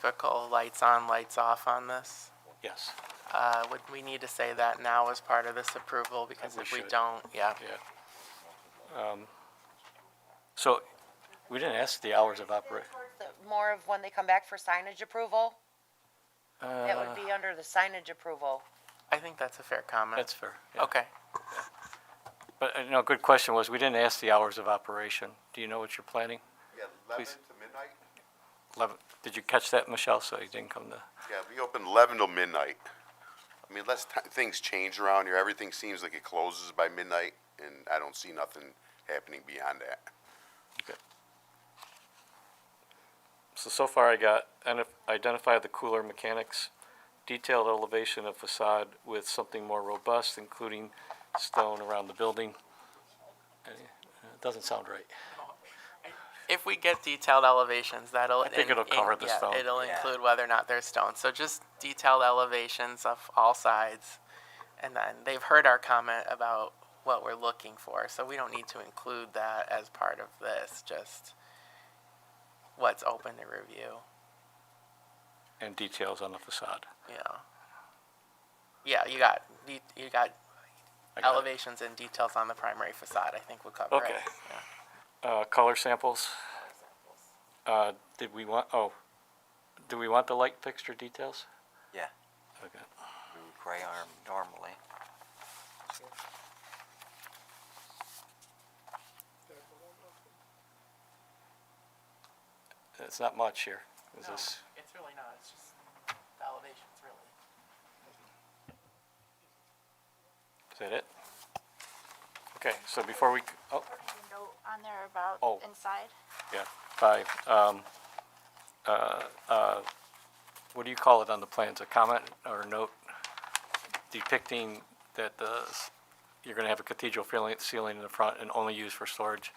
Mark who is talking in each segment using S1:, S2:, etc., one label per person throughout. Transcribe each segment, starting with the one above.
S1: typical lights on, lights off on this?
S2: Yes,
S1: Uh, Would we need to say that now as part of this approval? Because
S2: we
S1: if we
S2: should.
S1: don't, yeah.
S2: yeah. Um, So we didn't ask the hours of operation.
S3: Towards the- More of when they come back for signage approval,
S2: uh,
S3: that would be under the signage approval.
S1: I think that's a fair comment.
S2: That's fair. yeah.
S1: Okay.
S2: But, uh, no, good question was, we didn't ask the hours of operation. Do you know what you're planning?
S4: Yeah,
S2: Please.
S4: eleven to midnight?
S2: Eleven, did you catch that, Michelle, so you didn't come to?
S4: Yeah, we open eleven till midnight. I mean, unless ti- things change around here, everything seems like it closes by midnight, and I don't see nothing happening beyond that.
S2: Okay. So, so far I got, and identify the cooler mechanics, detailed elevation of facade with something more robust, including stone around the building. Uh, It doesn't sound right.
S1: If we get detailed elevations, that'll. I
S2: think it'll cover the stone.
S1: It'll include whether or not there's stone. So just detailed elevations of all sides. And then they've heard our comment about what we're looking for, so we don't need to include that as part of this, just what's open to review,
S2: And details on the facade.
S1: you know. Yeah, you got, de- you got
S2: I got it.
S1: elevations and details on the primary facade, I think would cover it.
S2: Okay.
S1: Yeah.
S2: Uh, color samples. Uh, did we want, oh, do we want the light fixture details?
S5: Yeah.
S2: Okay.
S5: Mm, Gray arm normally.
S2: It's not much here. Is this,
S1: It's really not, it's just the elevations, really.
S2: is that it? Okay, so before we, c- oh,
S6: note on there about
S2: Oh.
S6: inside.
S2: yeah, five. Um, uh, uh, what do you call it on the plans? A comment or a note depicting that the, s- you're gonna have a cathedral feeling- ceiling in the front and only used for storage?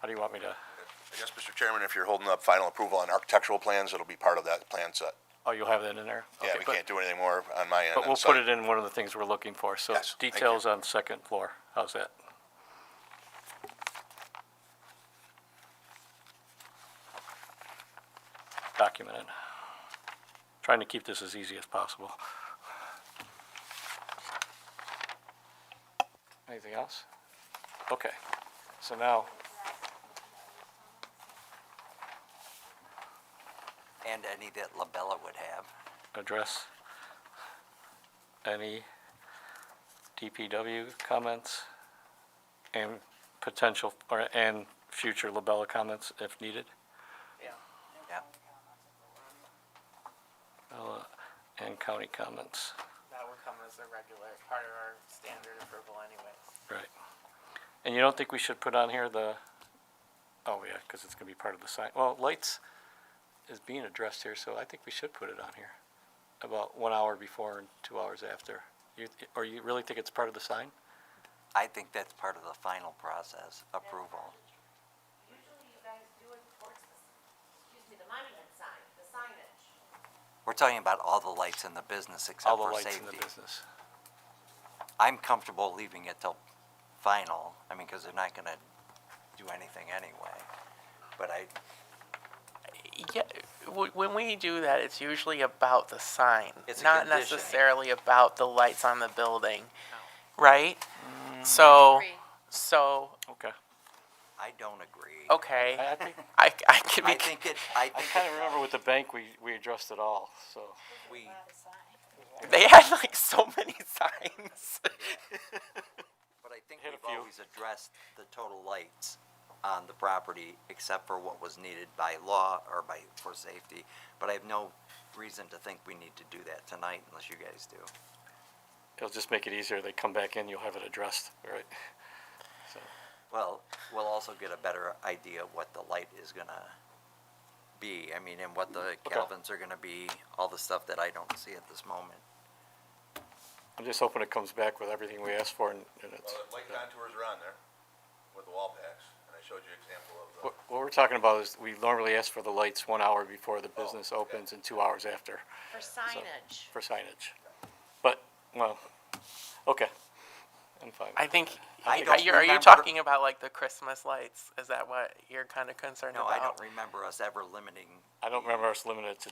S2: How do you want me to,
S7: I guess, Mr. Chairman, if you're holding up final approval on architectural plans, it'll be part of that plan set.
S2: oh, you'll have that in there?
S7: Yeah,
S2: Okay,
S7: we
S2: but-
S7: can't do anything more on my end.
S2: But
S7: I'm
S2: we'll put
S7: sorry.
S2: it in one of the things we're looking for, so
S7: Yes, thank you.
S2: details on second floor, how's that? Documented. Trying to keep this as easy as possible. Anything else? Okay, so now,
S5: And any that Labella would have.
S2: address any DPW comments and potential, or, and future Labella comments if needed.
S5: Yeah.
S2: Labella uh, and county comments,
S1: That would come as a regular, part of our standard approval anyways.
S2: right. And you don't think we should put on here the, oh yeah, because it's gonna be part of the sign, well, lights is being addressed here, so I think we should put it on here. About one hour before and two hours after. You, or you really think it's part of the sign?
S5: I think that's part of the final process, approval.
S8: Usually you guys do it towards the, excuse me, the monument sign, the signage.
S5: We're talking about all the lights in the business
S2: All
S5: except
S2: the
S5: for
S2: lights in the
S5: safety.
S2: business.
S5: I'm comfortable leaving it till final, I mean, because they're not gonna do anything anyway. But I,
S1: Yeah, w- when we do that, it's usually about the sign,
S5: It's a
S1: not
S5: condition.
S1: necessarily about the lights on the building, right? So,
S3: Three.
S1: so,
S2: Okay.
S5: I don't agree.
S1: okay,
S2: I, I think,
S1: I, I can
S5: I
S1: be,
S5: think it, I
S2: I
S5: think
S2: kind of
S5: it-
S2: remember with the bank, we, we addressed it all, so.
S5: we,
S1: they had like so many signs.
S5: but I think
S2: Hit a
S5: we've
S2: few.
S5: always addressed the total lights on the property except for what was needed by law or by, for safety. But I have no reason to think we need to do that tonight unless you guys do.
S2: It'll just make it easier. They come back in, you'll have it addressed, right?
S5: Well, we'll also get a better idea of what the light is gonna be, I mean, and what the
S2: Okay.
S5: Calvins are gonna be, all the stuff that I don't see at this moment.
S2: I'm just hoping it comes back with everything we asked for and and it's,
S7: Well, the Light contours are on there with the wall packs, and I showed you an example of the.
S2: what, what we're talking about is we normally ask for the lights one hour before the business
S7: okay.
S2: opens and two hours after
S3: For signage.
S2: for signage. But, well, okay. I'm fine.
S1: I think,
S5: I
S1: are
S5: don't
S1: you, are you
S5: remember-
S1: talking about like the Christmas lights? Is that what you're kind of concerned
S5: No,
S1: about?
S5: I don't remember us ever limiting
S2: I don't remember us limited to